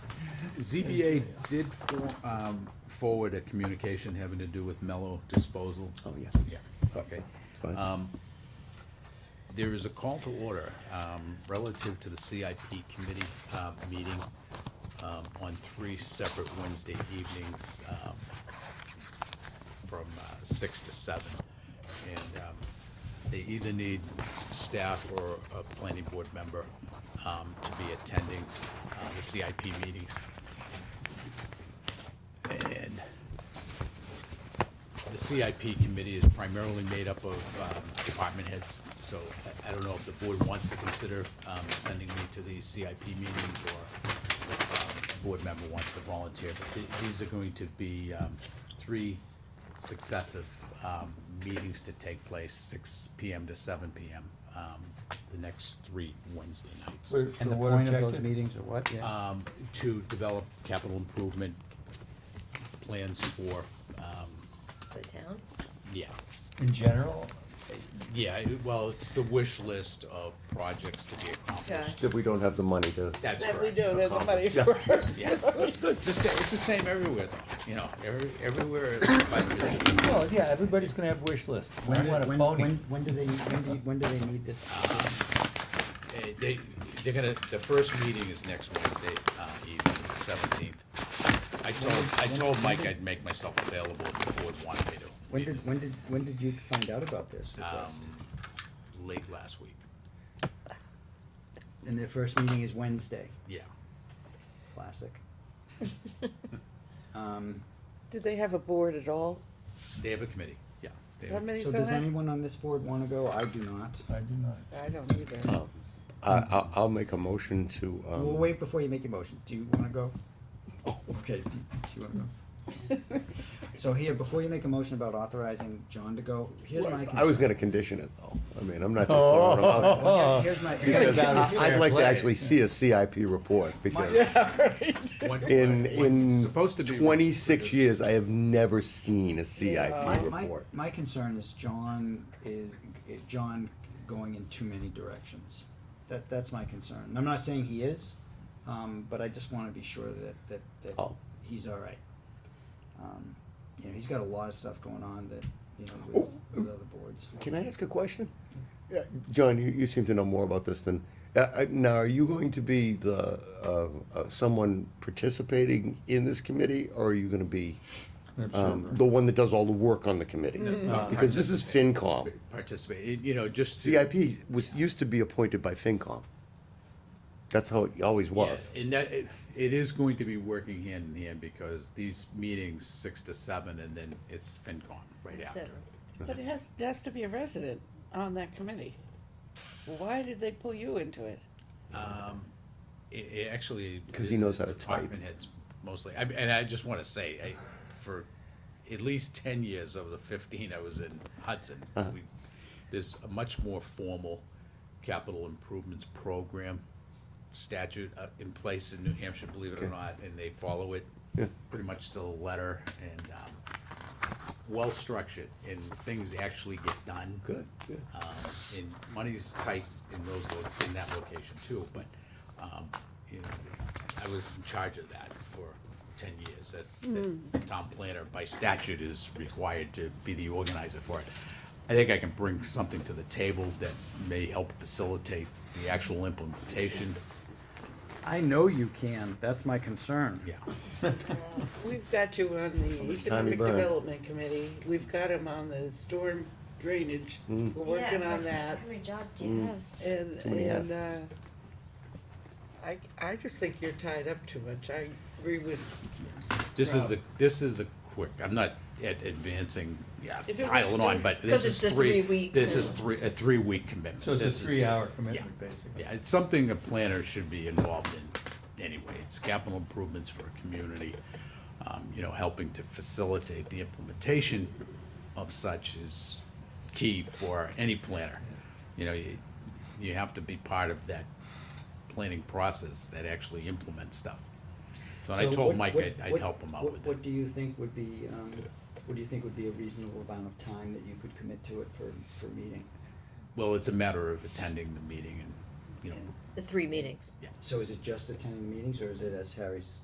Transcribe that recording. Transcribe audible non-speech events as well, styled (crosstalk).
ZBA did for- um, forward a communication having to do with mellow disposal. Oh, yeah. Yeah, okay. It's fine. Um, There is a call to order um, relative to the CIP committee uh, meeting um, on three separate Wednesday evenings um, from uh, six to seven. And um, they either need staff or a planning board member um, to be attending uh, the CIP meetings. And the CIP committee is primarily made up of um, department heads, so I- I don't know if the board wants to consider um, sending me to the CIP meetings or if um, a board member wants to volunteer, but th- these are going to be um, three successive um, meetings to take place, six PM to seven PM, um, the next three Wednesday nights. Wait, And the the water point of check those in? meetings are what, yeah? um, to develop capital improvement plans for, um, The town? yeah, In general, Yeah, it- well, it's the wish list of projects to be Okay. accomplished. That we don't have the money to. That's That we correct. do, there's the money Yeah. for it. Yeah, it's the same, it's the same everywhere, though, you know, every, everywhere. it's by (laughs) business. well, yeah, everybody's gonna have wish lists. We When, want a when, pony. when, when do they, when do, you- when do they need this? Eh, They, they're gonna, the first meeting is next Wednesday, uh, evening, seventeenth. I told, I told Mike I'd make myself available if the board wanted me to, When did, when did, when did you find out about this? Um, request? late last week, And their first meeting is Wednesday, yeah. classic. Um, (laughs) Do they have a board at all? They have a committee, yeah. they How have a- many so is that? does anyone on this board wanna go? I do not. I do not. I don't either. I, I, I'll make a motion to, um. Well, wait before you make your motion. Do you (laughs) wanna go? Oh, okay. Do you wanna go? So here, before you make a motion about authorizing John to go, here's my concern. I was (laughs) gonna condition it though. I mean, I'm not just Oh. throwing (laughs) it out there. Here- Here's my. Because here's- I- I'd like to actually see a CIP report because When- in, when- in supposed to be twenty-six reduced. years, I have never seen a Uh, My, CIP my, report. my concern is John is, eh, John going in too many directions. That, that's my concern. And I'm not saying he is, um, but I just wanna be sure that, that, that Oh. he's all right. Um, You know, he's got a lot of stuff going on that, you know, Oh, with, with other boards. Can I ask a question? Yeah, John, you, you seem to know more about this than, uh, uh, now, are you going to be the, uh, uh, someone participating in this committee, or are you gonna be, um, the one that does all the work on the committee? no, Because this is FinCom. Participate, you know, just. to- CIP was, used to be appointed by FinCom. That's how it always was. Yeah, And that, it, it is going to be working hand in hand because these meetings, six to seven, and then it's FinCon right That's after. it. But it has, it has to be a resident on that committee. Why did they pull you into it? It, it actually. 'Cause he knows how to type. Department heads mostly, I, and I just wanna say, I, for at least ten years of the fifteen I was in Hudson, Uh-huh. we, there's a much more formal capital improvements program statute uh, in place in New Hampshire, believe it or not, and they follow it pretty much to the letter and, um, well-structured, and things actually get done. Good, good. Um, and money's tight in those, lo- in that location too, but, um, you know, I was in charge of that for ten years. That, that the Mm. town planner by statute is required to be the organizer for it. I think I can bring something to the table that may help facilitate the actual implementation, I know you can, that's my concern. yeah. We've got you on the much time you Economic burn. Development Committee, we've got him on the storm drainage, we're Yeah, working it's on like, that. How many jobs do Mm. you have? And, Mm. Too many and, uh, hats. I, I just think you're tied up too much, I agree with, This is a, this is a quick, I'm not ad- advancing, yeah, If it was piling on, three- but this Because is it's the three, three weeks this and- is three, a three-week commitment. So it's a This is- three-hour yeah. commitment, basically. Yeah, it's something a planner should be involved in anyway. It's capital improvements for a community. Um, you know, helping to facilitate the implementation of such is key for any planner. You know, you, you have to be part of that planning process that actually implements stuff. So I So told what- Mike what- I'd, I'd what- help him out what- with What it. do you think would be, um, what do you think would be a reasonable amount of time that you could commit to it per, per meeting? Well, it's a matter of attending the meeting and, you know, The three meetings. So is it just attending meetings, or is it, as Harry's